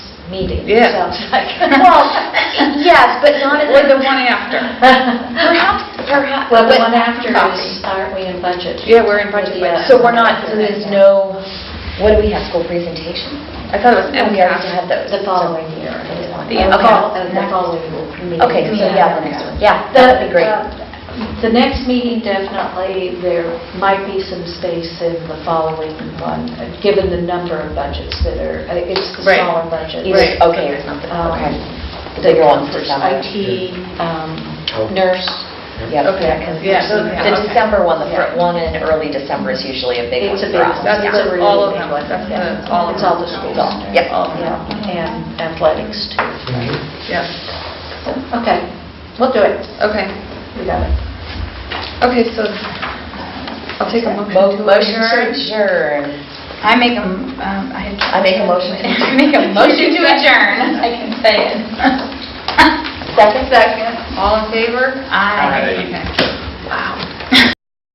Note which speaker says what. Speaker 1: meeting.
Speaker 2: Yeah.
Speaker 1: Sounds like. Well, yes, but not at
Speaker 2: Or the
Speaker 1: the...
Speaker 2: one after.
Speaker 1: Perhaps, perhaps. Well, the
Speaker 2: but
Speaker 1: one after
Speaker 2: coffee.
Speaker 1: is, aren't we in budget?
Speaker 2: Yeah, we're in budget,
Speaker 1: Yeah.
Speaker 2: so
Speaker 3: So we're not, so there's no, what do we have, school presentation?
Speaker 2: I thought it was
Speaker 3: We already
Speaker 2: MCAS.
Speaker 3: have those.
Speaker 1: The following year. Uh,
Speaker 2: Yeah, okay.
Speaker 1: uh, The following meeting.
Speaker 3: Okay, so yeah, the next one, yeah, that would be great.
Speaker 1: uh, The next meeting, definitely, there might be some space in the following one, uh, given the number of budgets that are, uh, it's the
Speaker 2: Right.
Speaker 1: smaller budget.
Speaker 3: Either
Speaker 2: Right.
Speaker 3: okay or something,
Speaker 1: Um,
Speaker 3: okay. The bigger ones for summer.
Speaker 1: IT, um, nurse.
Speaker 3: Yep,
Speaker 2: Okay.
Speaker 3: yeah, 'cause
Speaker 2: Yeah, so-
Speaker 3: The
Speaker 2: okay.
Speaker 3: December one, the fir-
Speaker 1: Yeah.
Speaker 3: one in early December is usually a big one
Speaker 1: It's a
Speaker 3: for
Speaker 1: big
Speaker 3: us.
Speaker 1: one.
Speaker 2: That's
Speaker 3: yeah.
Speaker 1: a
Speaker 2: the- all of
Speaker 1: really
Speaker 2: them,
Speaker 1: big
Speaker 2: that's
Speaker 1: one, yeah.
Speaker 2: the, all of them.
Speaker 1: It's all the schools.
Speaker 3: Yep.
Speaker 2: All of them,
Speaker 1: Yeah, and athletics too.
Speaker 2: yeah,
Speaker 1: Okay, we'll do it.
Speaker 2: okay.
Speaker 1: We got it.
Speaker 2: Okay, so I'll take a
Speaker 3: Mo-
Speaker 2: motion to
Speaker 3: Motion to
Speaker 2: adjourn.
Speaker 3: adjourn.
Speaker 4: I make a, m- um, I...
Speaker 3: I make a motion to
Speaker 4: I make a motion to adjourn. I can say it.
Speaker 3: Second?
Speaker 2: Second, all in favor?
Speaker 4: Aye.
Speaker 2: Okay.